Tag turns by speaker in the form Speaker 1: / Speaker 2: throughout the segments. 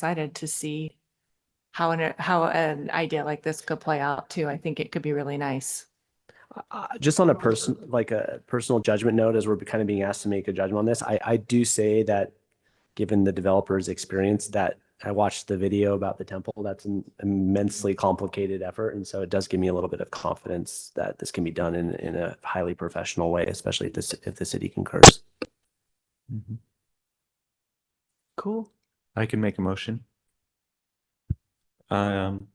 Speaker 1: excited to see how an, how an idea like this could play out too. I think it could be really nice.
Speaker 2: Uh, just on a person, like a personal judgment note, as we're kind of being asked to make a judgment on this, I, I do say that given the developer's experience that I watched the video about the temple, that's an immensely complicated effort. And so it does give me a little bit of confidence that this can be done in, in a highly professional way, especially if this, if the city concurs.
Speaker 3: Mhm.
Speaker 2: Cool.
Speaker 3: I can make a motion. Um,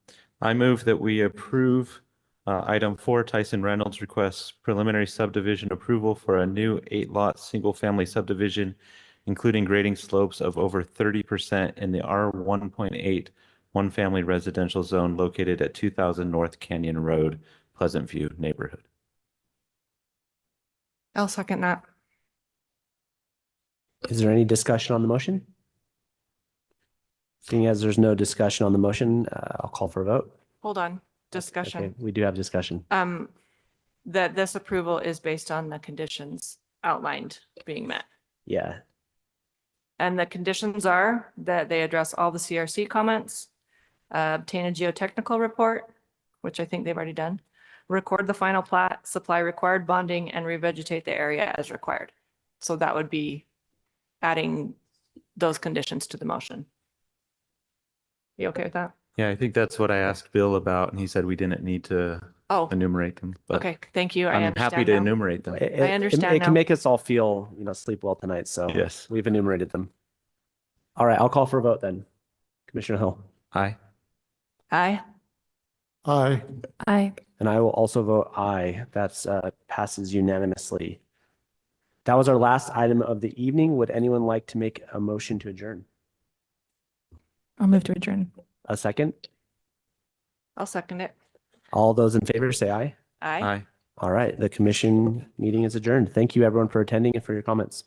Speaker 3: I move that we approve uh, item four, Tyson Reynolds requests preliminary subdivision approval for a new eight-lot, single-family subdivision, including grading slopes of over thirty percent in the R one point eight, one-family residential zone located at two thousand North Canyon Road, Pleasant View neighborhood.
Speaker 1: I'll second that.
Speaker 2: Is there any discussion on the motion? Seeing as there's no discussion on the motion, uh, I'll call for a vote.
Speaker 1: Hold on,
Speaker 2: Okay,
Speaker 1: discussion.
Speaker 2: We do have discussion.
Speaker 1: Um, that this approval is based on the conditions outlined being met.
Speaker 2: Yeah.
Speaker 1: And the conditions are that they address all the CRC comments, uh, obtain a geotechnical report, which I think they've already done, record the final plat, supply required bonding, and revegetate the area as required. So that would be adding those conditions to the motion. You okay with that?
Speaker 3: Yeah, I think that's what I asked Bill about, and he said we didn't need to
Speaker 1: Oh,
Speaker 3: enumerate them, but
Speaker 1: okay, thank you. I
Speaker 3: I'm happy
Speaker 1: understand
Speaker 3: to
Speaker 1: now.
Speaker 3: enumerate them.
Speaker 2: It- it- it-
Speaker 1: understand
Speaker 2: It
Speaker 1: now.
Speaker 2: can make us all feel, you know, sleep well tonight. So
Speaker 3: Yes,
Speaker 2: we've enumerated them. All right, I'll call for a vote then. Commissioner Hill.
Speaker 3: aye.
Speaker 1: Aye.
Speaker 4: Aye.
Speaker 1: Aye.
Speaker 2: And I will also vote aye. That's uh, passes unanimously. That was our last item of the evening. Would anyone like to make a motion to adjourn?
Speaker 5: I'll move to adjourn.
Speaker 2: A second?
Speaker 1: I'll second it.
Speaker 2: All those in favor say aye.
Speaker 1: Aye.
Speaker 3: Aye.
Speaker 2: All right, the commission meeting is adjourned. Thank you everyone for attending and for your comments.